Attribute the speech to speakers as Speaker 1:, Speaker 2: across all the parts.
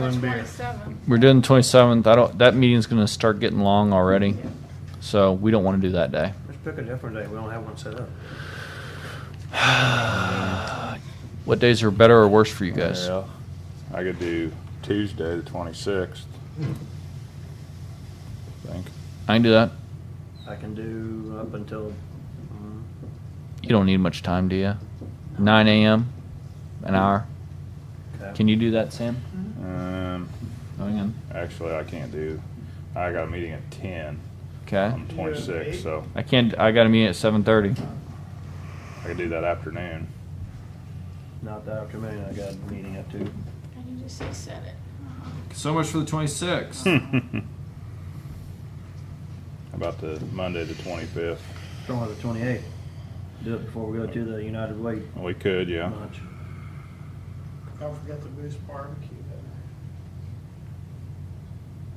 Speaker 1: one beer.
Speaker 2: We're doing the 27th. I don't, that meeting's going to start getting long already. So we don't want to do that day.
Speaker 1: Let's pick a different day. We don't have one set up.
Speaker 2: What days are better or worse for you guys?
Speaker 3: Well, I could do Tuesday, the twenty-sixth. Think,
Speaker 2: I can do that.
Speaker 1: I can do up until, mm,
Speaker 2: You don't need much time, do you? 9 a.m., an hour.
Speaker 1: okay.
Speaker 2: Can you do that, Sam?
Speaker 4: Mm-hmm.
Speaker 3: um,
Speaker 2: Going in.
Speaker 3: actually, I can't do, I got a meeting at ten
Speaker 2: Okay.
Speaker 3: on twenty-sixth, so
Speaker 2: I can't. I got to meet at 7:30.
Speaker 3: I could do that afternoon.
Speaker 1: Not the afternoon. I got a meeting at two.
Speaker 5: And you just say Uh-huh. said it.
Speaker 2: So much for the 26th.
Speaker 4: Hmm.
Speaker 3: How About the Monday, the twenty-fifth,
Speaker 1: Don't have the twenty-eighth. Do it before we go to the United Way
Speaker 3: we could, yeah,
Speaker 1: lunch.
Speaker 6: Don't forget the Moose Barbecue that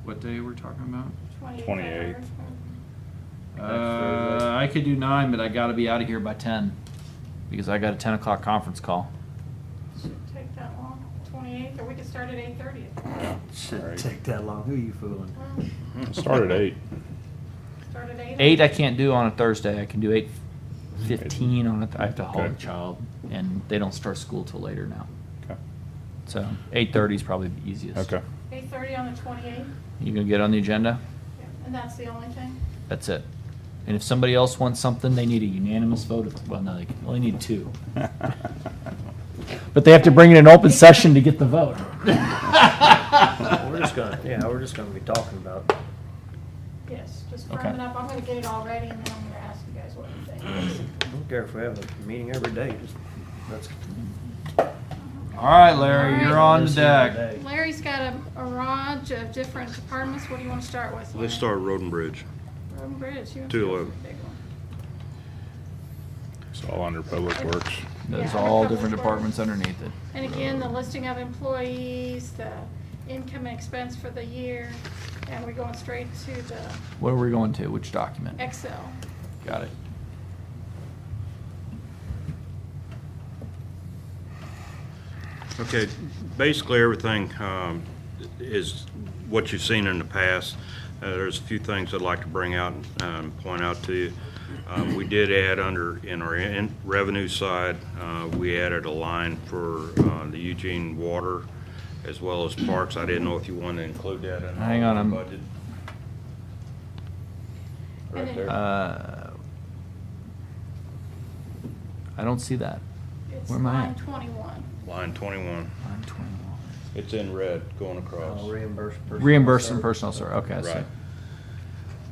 Speaker 2: what day we're talking about?
Speaker 3: 28.
Speaker 2: Uh, I could do nine, but I got to be out of here by 10 because I got a 10 o'clock conference call.
Speaker 5: Shouldn't take that long. Twenty-eighth, or we could start at eight-thirty.
Speaker 1: Shouldn't
Speaker 3: Right.
Speaker 1: take that long. Who are you fooling?
Speaker 3: start at eight.
Speaker 5: Start at eight.
Speaker 2: Eight I can't do on a Thursday. I can do eight fifteen on a. Th- I have to haul
Speaker 3: Okay.
Speaker 2: the child, and they don't start school till later now.
Speaker 3: Okay.
Speaker 2: So eight thirty is probably the easiest.
Speaker 3: Okay,
Speaker 5: Eight-thirty on the twenty-eighth,
Speaker 2: You gonna get on the agenda?
Speaker 5: and that's the only thing?
Speaker 2: That's it. And if somebody else wants something, they need a unanimous vote. Of, well, no, they can only need two. But they have to bring in an open session to get the vote.
Speaker 1: We're just gonna, yeah, we're just gonna be talking about
Speaker 5: Yes, just
Speaker 2: Okay.
Speaker 5: firm it up. I'm gonna get it all ready, and then I'm gonna ask you guys what you think.
Speaker 1: I don't care if we have a meeting every day, just, let's.
Speaker 2: All right, Larry,
Speaker 5: All
Speaker 2: you're
Speaker 5: right.
Speaker 2: on the
Speaker 1: let's
Speaker 2: deck.
Speaker 1: every day.
Speaker 5: Larry's got a, a range of different departments. What do you wanna start with?
Speaker 4: Let's start Road and Bridge.
Speaker 5: Road and Bridge. you have
Speaker 4: Two
Speaker 5: to go
Speaker 4: eleven.
Speaker 5: for the big one.
Speaker 3: it's all under Public Works.
Speaker 2: There's
Speaker 5: Yeah.
Speaker 2: all different departments underneath it.
Speaker 5: And again, the listing of employees, the income and expense for the year, and we're going straight to the
Speaker 2: What are we going to? Which document?
Speaker 5: Excel.
Speaker 2: Got it.
Speaker 4: Okay, basically everything um, is what you've seen in the past. Uh, There's a few things I'd like to bring out and point out to you. Um, We did add under, in our in- revenue side, uh, we added a line for uh, the Eugene Water as well as Parks. I didn't know if you wanted to include that in
Speaker 2: Hang on,
Speaker 4: our
Speaker 2: I'm-
Speaker 4: budget.
Speaker 5: And
Speaker 4: Right
Speaker 5: it-
Speaker 4: there.
Speaker 2: Uh, I don't see that.
Speaker 5: It's
Speaker 2: Where am I
Speaker 5: line
Speaker 2: at?
Speaker 5: twenty-one.
Speaker 4: Line 21.
Speaker 2: Line 21.
Speaker 4: It's in red going across.
Speaker 2: Oh,
Speaker 1: Uh, Reimburse. personal
Speaker 2: Reimbursed and
Speaker 1: service.
Speaker 2: personal, sir. Okay, I see.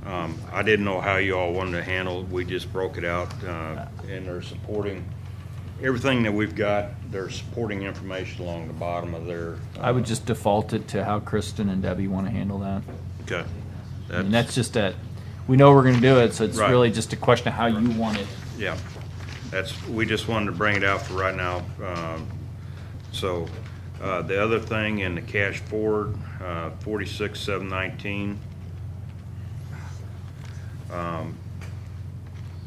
Speaker 4: Right. Um, I didn't know how you all wanted to handle it. We just broke it out, uh, and they're supporting, everything that we've got, they're supporting information along the bottom of their. uh,
Speaker 2: I would just default it to how Kristen and Debbie want to handle that.
Speaker 4: Okay.
Speaker 2: And that's just a, we know we're going to do it, so it's
Speaker 4: Right.
Speaker 2: really just a question of how you want it.
Speaker 4: Yeah, that's, we just wanted to bring it out for right now. Um, So, uh, the other thing in the cash forward, uh, forty-six, seven nineteen.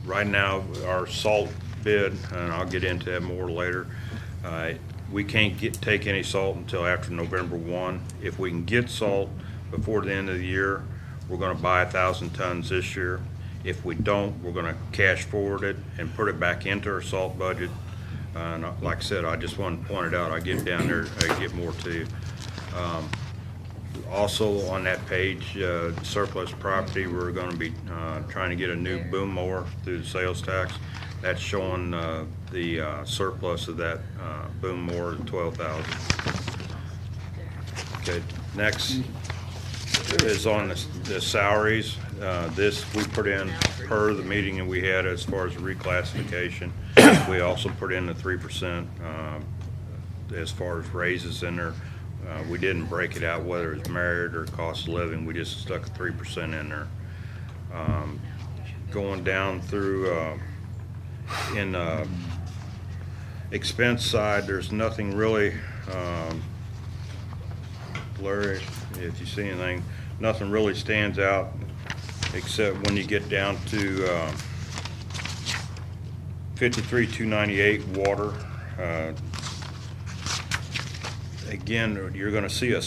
Speaker 4: Right now, our salt bid, and I'll get into that more later, uh, we can't get, take any salt until after November one. If we can get salt before the end of the year, we're gonna buy a thousand tons this year. If we don't, we're gonna cash forward it and put it back into our salt budget. Uh, And I- like I said, I just wanted to point it out, I get down there, I get more to you. Um, Also, on that page, uh, surplus property, we're gonna be uh, trying to get a new boom mower through the sales tax. That's showing uh, the uh, surplus of that uh, boom mower, twelve thousand. Okay, next is on the the salaries. Uh, This, we put in per the meeting that we had as far as reclassification. We also put in the three percent uh, as far as raises in there. Uh, We didn't break it out whether it's merit or cost of living. We just stuck a three percent in there. Um, Going down through, uh, in uh, expense side, there's nothing really um, Larry, if you see anything, nothing really stands out, except when you get down to uh, fifty-three, two ninety-eight water. uh, Again, you're gonna see a